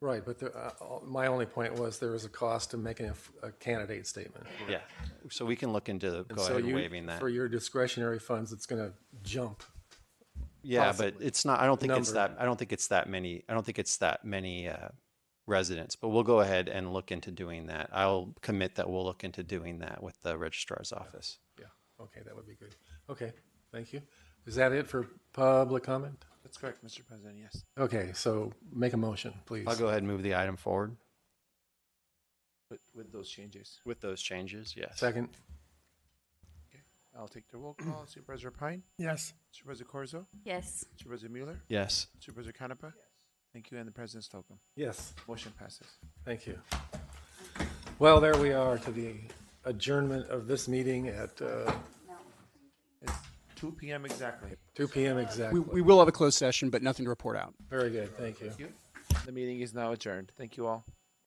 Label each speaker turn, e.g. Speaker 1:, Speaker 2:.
Speaker 1: Right, but the, uh, my only point was there is a cost to making a f- a candidate statement.
Speaker 2: Yeah, so we can look into go
Speaker 1: So
Speaker 2: ahead and
Speaker 1: you-
Speaker 2: waiving that.
Speaker 1: For your discretionary funds, it's going to jump.
Speaker 2: Yeah, but it's not, I don't think it's
Speaker 1: Number.
Speaker 2: that, I don't think it's that many, I don't think it's that many uh, residents, but we'll go ahead and look into doing that. I'll commit that we'll look into doing that with the registrar's office.
Speaker 1: Yeah, okay, that would be good. Okay, thank you. Is that it for public comment?
Speaker 3: That's correct, Mr. President, yes.
Speaker 1: Okay, so make a motion, please.
Speaker 2: I'll go ahead and move the item forward.
Speaker 3: With, with those changes,
Speaker 2: With those changes, yes.
Speaker 1: Second,
Speaker 3: I'll take the roll call. Supervisor Pine,
Speaker 4: yes,
Speaker 3: Supervisor Corzo,
Speaker 5: yes,
Speaker 3: Supervisor Mueller,
Speaker 2: Yes,
Speaker 3: Supervisor Canepa. Thank you, and the President Slocum.
Speaker 1: yes,
Speaker 3: Motion passes.
Speaker 1: thank you. Well, there we are to the adjournment of this meeting at uh,
Speaker 3: It's two PM exactly.
Speaker 1: 2 PM
Speaker 6: We,
Speaker 1: exactly.
Speaker 6: we will have a closed session, but nothing to report out.
Speaker 1: Very good, thank you.
Speaker 3: The meeting is now adjourned. Thank you all.